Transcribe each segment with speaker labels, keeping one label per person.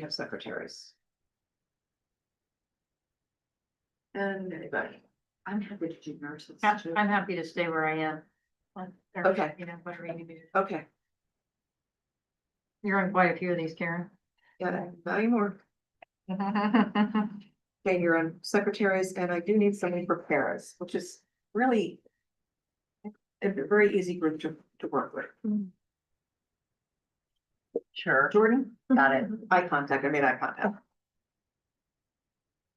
Speaker 1: you have secretaries. And anybody, I'm happy to do nurses
Speaker 2: Yeah,
Speaker 1: too.
Speaker 2: I'm happy to stay where I am. Like, or,
Speaker 1: Okay.
Speaker 2: You know, whatever you do.
Speaker 1: Okay,
Speaker 2: You're on quite a few of these, Karen.
Speaker 1: yeah, value more, okay, you're on secretaries, and I do need somebody for paras, which is really. A very easy group to, to work with.
Speaker 3: Sure.
Speaker 1: Jordan,
Speaker 3: Got it.
Speaker 1: eye contact, I made eye contact.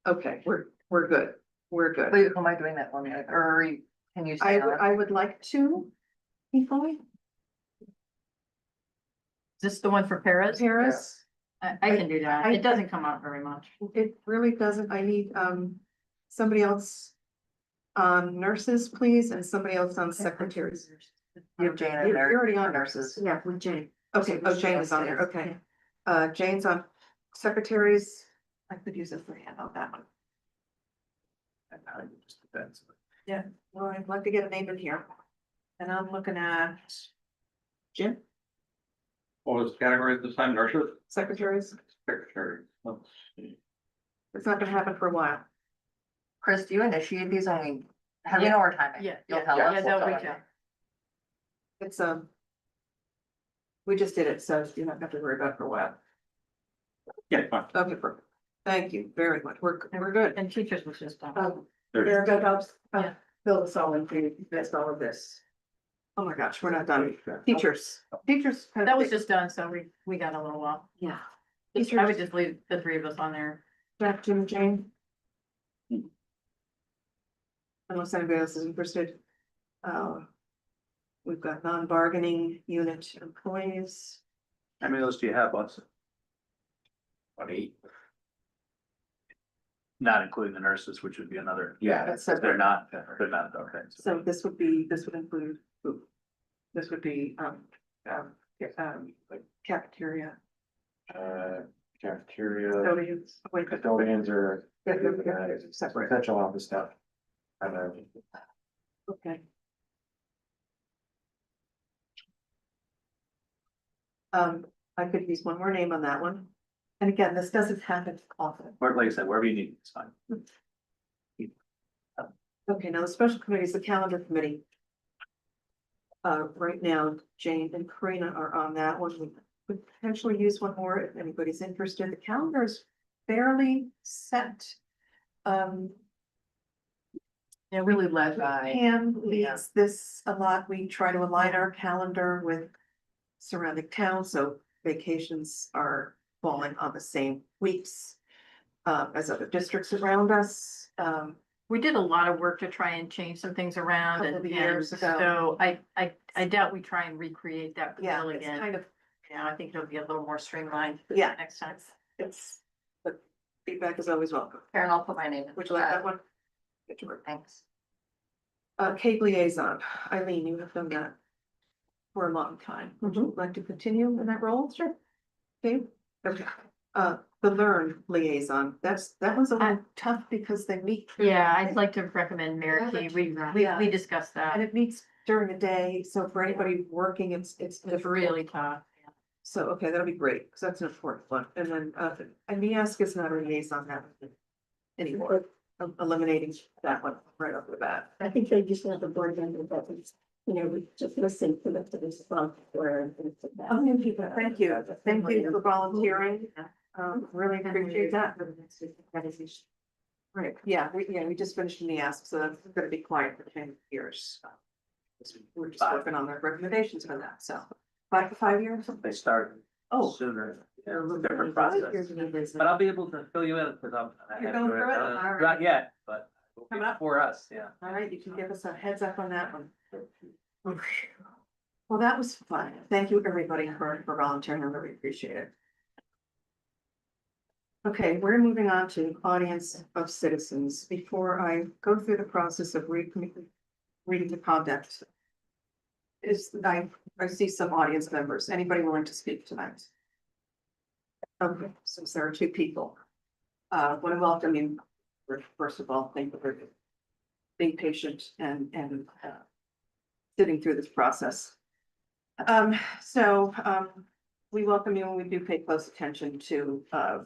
Speaker 1: Okay, we're, we're good, we're good.
Speaker 3: Wait, am I doing that one minute or are you- can you
Speaker 1: I
Speaker 3: say
Speaker 1: would,
Speaker 3: that?
Speaker 1: I would like to. Before we,
Speaker 2: This the one for Paris?
Speaker 1: Paris.
Speaker 2: I, I can do that.
Speaker 1: I-
Speaker 2: It doesn't come out very much.
Speaker 1: It really doesn't, I need, um, somebody else. On nurses, please, and somebody else on secretaries.
Speaker 3: You have Jane
Speaker 1: You're
Speaker 3: in
Speaker 1: you're
Speaker 3: there.
Speaker 1: already on nurses.
Speaker 2: Yeah, with Jane.
Speaker 1: Okay, oh, Jane is on there, okay. Uh, Jane's on secretaries. I could use a free hand on that one. Well, I'd like to get a name in here. And I'm looking at. Jim,
Speaker 4: What was the category at this time, nurses, Oh,
Speaker 1: secretaries.
Speaker 4: secretary? Let's see.
Speaker 1: It's not gonna happen for a while.
Speaker 3: Chris, do you initiate these? I mean, have you
Speaker 2: Yeah.
Speaker 3: know our timing?
Speaker 2: Yeah,
Speaker 3: You'll
Speaker 2: yeah,
Speaker 3: tell
Speaker 2: yeah,
Speaker 3: us. we'll
Speaker 2: they'll
Speaker 3: tell
Speaker 2: reach
Speaker 3: you.
Speaker 2: out.
Speaker 1: It's, um. We just did it, so you don't have to worry about it for a while.
Speaker 4: Yeah, fine.
Speaker 1: Okay, perfect. Thank you very much. We're, we're good.
Speaker 2: And teachers was just on.
Speaker 1: Um,
Speaker 4: There's-
Speaker 1: There go helps, uh,
Speaker 2: Yeah.
Speaker 1: fill us all in, for- that's all of this. Oh my gosh, we're not done. Teachers, teachers. kind of-
Speaker 2: That was just done, so we, we got a little while.
Speaker 1: Yeah.
Speaker 2: Just- I would just leave the three of us on there.
Speaker 1: Jack, Jim, and Jane. Unless anybody else is interested. Uh, We've got non-bargaining unit employees.
Speaker 4: How many of those do you have, Bus?
Speaker 5: About eight. Not including the nurses, which would be another.
Speaker 4: Yeah.
Speaker 1: That's
Speaker 5: They're
Speaker 1: separate.
Speaker 5: not, they're not, okay.
Speaker 1: So this would be, this would include food. This would be, um, um, ca- um, like cafeteria,
Speaker 6: uh, cafeteria,
Speaker 1: custodians, wait,
Speaker 6: custodians or
Speaker 1: yeah, yeah, yeah, yeah, separate,
Speaker 6: central office stuff. I don't know.
Speaker 1: okay. Um, I could use one more name on that one. And again, this doesn't happen often.
Speaker 5: Where, like I said, wherever you need, it's fine.
Speaker 1: Okay, now the special committee is the calendar committee. Uh, right now, Jane and Karina are on that one. We could potentially use one more if anybody's interested. The calendar is fairly set. Um,
Speaker 2: Yeah, really led
Speaker 1: Pam leads this a lot. We try to align our calendar with surrounding towns, so vacations are falling on the same weeks uh, as other districts around us. Um,
Speaker 2: We did a lot of work to try and change some things around
Speaker 1: Couple
Speaker 2: and,
Speaker 1: of
Speaker 2: and
Speaker 1: years ago.
Speaker 2: so I, I, I doubt we try and recreate that
Speaker 1: yeah,
Speaker 2: wheel
Speaker 1: it's
Speaker 2: again.
Speaker 1: kind of,
Speaker 2: Yeah, I think it'll be a little more streamlined
Speaker 1: yeah,
Speaker 2: next time.
Speaker 1: it's, but feedback is always welcome.
Speaker 3: Karen, I'll put my name in.
Speaker 1: Would you like
Speaker 3: Uh,
Speaker 1: that one? Good to work.
Speaker 3: Thanks.
Speaker 1: Uh, cave liaison, Eileen, you have done that for a long time. Would you like to continue in that role? Sure. Okay, okay. Uh, the learn liaison, that's, that one's a little tough because they meet.
Speaker 2: Yeah, I'd like to recommend Mary
Speaker 1: Yeah,
Speaker 2: Kay.
Speaker 1: let's
Speaker 2: We,
Speaker 1: do that.
Speaker 2: we,
Speaker 1: Yeah.
Speaker 2: we discussed
Speaker 1: And
Speaker 2: that.
Speaker 1: it meets during the day, so for anybody working, it's, it's.
Speaker 2: It's
Speaker 1: difficult.
Speaker 2: really tough.
Speaker 1: So, okay, that'll be great, because that's an important one. And then, uh, and Miask is not a liaison that anymore. I'm Eliminating that one right off the bat.
Speaker 7: I think they just have the board member that was, you know, we just listen to the, to the response where and things like that.
Speaker 1: Oh, Thank you, thank you for volunteering. Um, really appreciate that. Right, yeah, we, yeah, we just finished the ask, so that's gonna be quiet for ten years. We're just working on our recommendations for that, so five to five years.
Speaker 5: They start
Speaker 1: Oh.
Speaker 5: sooner.
Speaker 1: yeah, a little bit.
Speaker 5: Different process. But I'll be able to fill you in because I'm. I
Speaker 1: You're
Speaker 5: haven't
Speaker 1: going
Speaker 5: read-
Speaker 1: through it?
Speaker 5: uh,
Speaker 1: All right.
Speaker 5: Not yet, but it'll be
Speaker 1: Coming up.
Speaker 5: for us, yeah.
Speaker 1: All right, you can give us a heads up on that one. Well, that was fun. Thank you, everybody, for for volunteering. I really appreciate it. Okay, we're moving on to audience of citizens. Before I go through the process of reading, reading the conduct. Is, I, I see some audience members. Anybody willing to speak tonight? Okay, Um, since there are two people. Uh, want to welcome you, first of all, thank you for being patient and, and, uh, sitting through this process. Um, so, um, we welcome you and we do pay close attention to, uh,